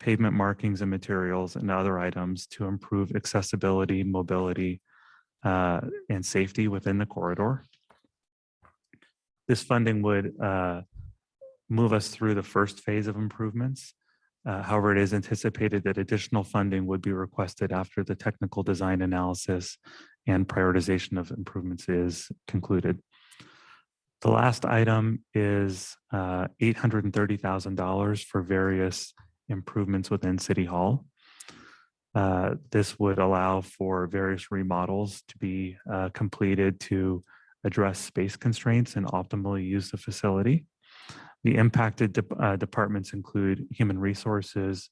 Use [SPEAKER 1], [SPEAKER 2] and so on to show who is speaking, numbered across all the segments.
[SPEAKER 1] pavement markings and materials and other items to improve accessibility, mobility, uh, and safety within the corridor. This funding would uh, move us through the first phase of improvements. Uh, However, it is anticipated that additional funding would be requested after the technical design analysis and prioritization of improvements is concluded. The last item is uh, $830,000 for various improvements within City Hall. Uh, This would allow for various remodels to be uh, completed to address space constraints and optimally use the facility. The impacted dep- uh, departments include human resources,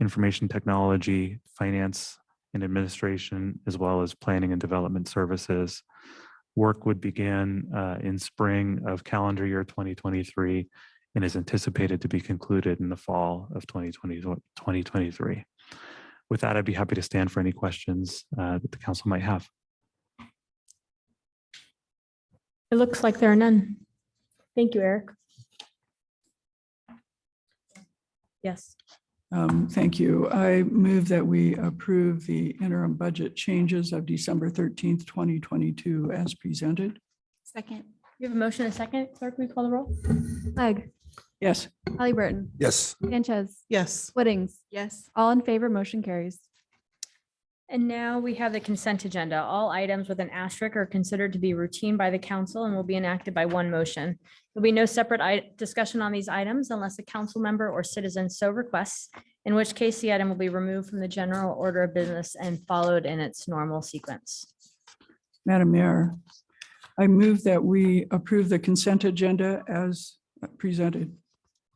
[SPEAKER 1] information technology, finance and administration, as well as planning and development services. Work would begin uh, in spring of calendar year 2023 and is anticipated to be concluded in the fall of 2020 2023. With that, I'd be happy to stand for any questions uh, that the council might have.
[SPEAKER 2] It looks like there are none. Thank you, Eric. Yes,
[SPEAKER 3] Um, Thank you. I move that we approve the interim budget changes of December 13th, 2022 as presented.
[SPEAKER 4] Second.
[SPEAKER 2] you have a motion and a second. Clerk, will you call the roll?
[SPEAKER 5] Clegg,
[SPEAKER 3] Yes,
[SPEAKER 5] Hallie Burton,
[SPEAKER 6] Yes.
[SPEAKER 5] Sanchez,
[SPEAKER 4] Yes.
[SPEAKER 5] Whittings,
[SPEAKER 4] Yes.
[SPEAKER 5] all in favor, motion carries.
[SPEAKER 2] And now we have the consent agenda. All items with an asterisk are considered to be routine by the council and will be enacted by one motion. There'll be no separate i- discussion on these items unless a council member or citizen so requests, in which case the item will be removed from the general order of business and followed in its normal sequence.
[SPEAKER 3] Madam Mayor, I move that we approve the consent agenda as presented.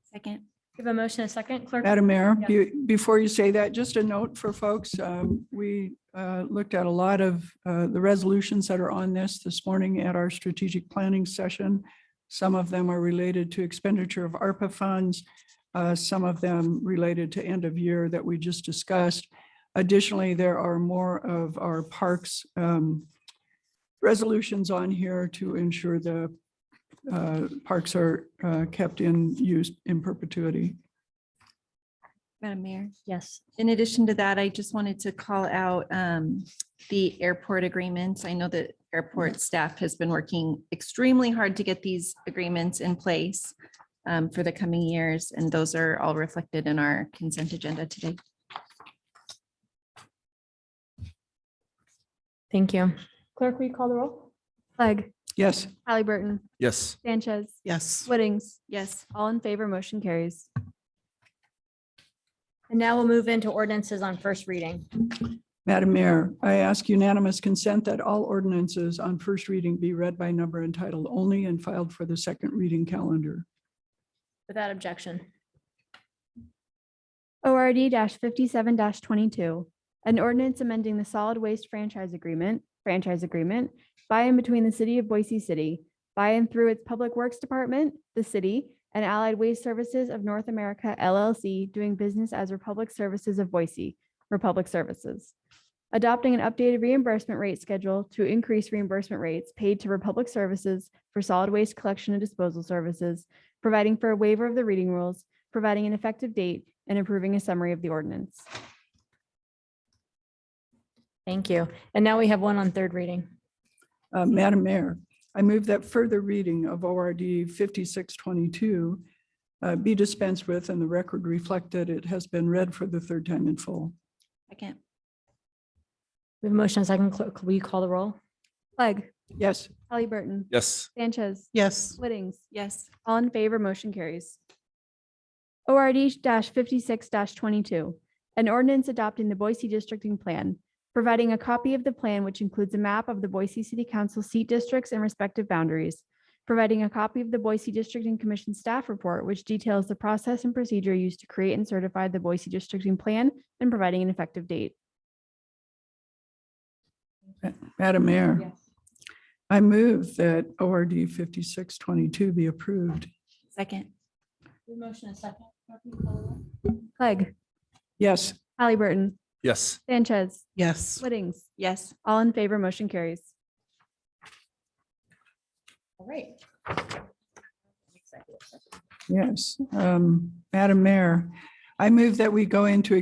[SPEAKER 4] Second.
[SPEAKER 2] You have a motion and a second. Clerk,
[SPEAKER 3] Madam Mayor, be- before you say that, just a note for folks. um, We uh, looked at a lot of uh, the resolutions that are on this this morning at our strategic planning session. Some of them are related to expenditure of ARPA funds, uh, some of them related to end of year that we just discussed. Additionally, there are more of our parks um, resolutions on here to ensure the uh, parks are uh, kept in use in perpetuity.
[SPEAKER 4] Madam Mayor,
[SPEAKER 2] yes.
[SPEAKER 4] in addition to that, I just wanted to call out um, the airport agreements. I know that airport staff has been working extremely hard to get these agreements in place um, for the coming years, and those are all reflected in our consent agenda today.
[SPEAKER 2] Thank you. Clerk, will you call the roll?
[SPEAKER 5] Clegg,
[SPEAKER 3] Yes.
[SPEAKER 5] Hallie Burton,
[SPEAKER 6] Yes.
[SPEAKER 5] Sanchez,
[SPEAKER 7] Yes.
[SPEAKER 5] Whittings,
[SPEAKER 4] Yes.
[SPEAKER 5] all in favor, motion carries.
[SPEAKER 2] And now we'll move into ordinances on first reading.
[SPEAKER 3] Madam Mayor, I ask unanimous consent that all ordinances on first reading be read by number and title only and filed for the second reading calendar.
[SPEAKER 2] Without objection.
[SPEAKER 5] ORD fifty-seven twenty-two, an ordinance amending the solid waste franchise agreement, franchise agreement by and between the city of Boise City, by and through its Public Works Department, the city, and Allied Waste Services of North America LLC, doing business as Republic Services of Boise, Republic Services. Adopting an updated reimbursement rate schedule to increase reimbursement rates paid to Republic Services for solid waste collection and disposal services, providing for a waiver of the reading rules, providing an effective date, and approving a summary of the ordinance.
[SPEAKER 2] Thank you. And now we have one on third reading.
[SPEAKER 3] Uh, Madam Mayor, I move that further reading of ORD 5622 uh, be dispensed with and the record reflect that it has been read for the third time in full.
[SPEAKER 4] Second.
[SPEAKER 2] We have a motion and a second. Clerk, will you call the roll?
[SPEAKER 5] Clegg,
[SPEAKER 3] Yes.
[SPEAKER 5] Hallie Burton,
[SPEAKER 6] Yes.
[SPEAKER 5] Sanchez,
[SPEAKER 7] Yes.
[SPEAKER 5] Whittings,
[SPEAKER 4] Yes.
[SPEAKER 5] all in favor, motion carries. ORD fifty-six twenty-two, an ordinance adopting the Boise districting plan, providing a copy of the plan which includes a map of the Boise City Council seat districts and respective boundaries, providing a copy of the Boise Districting Commission staff report which details the process and procedure used to create and certify the Boise districting plan and providing an effective date.
[SPEAKER 3] Madam Mayor, I move that ORD 5622 be approved.
[SPEAKER 4] Second.
[SPEAKER 2] Motion and second.
[SPEAKER 5] Clegg,
[SPEAKER 3] Yes.
[SPEAKER 5] Hallie Burton,
[SPEAKER 6] Yes.
[SPEAKER 5] Sanchez,
[SPEAKER 7] Yes.
[SPEAKER 5] Whittings,
[SPEAKER 4] Yes.
[SPEAKER 5] all in favor, motion carries.
[SPEAKER 4] All right.
[SPEAKER 3] Yes, um, Madam Mayor, I move that we go into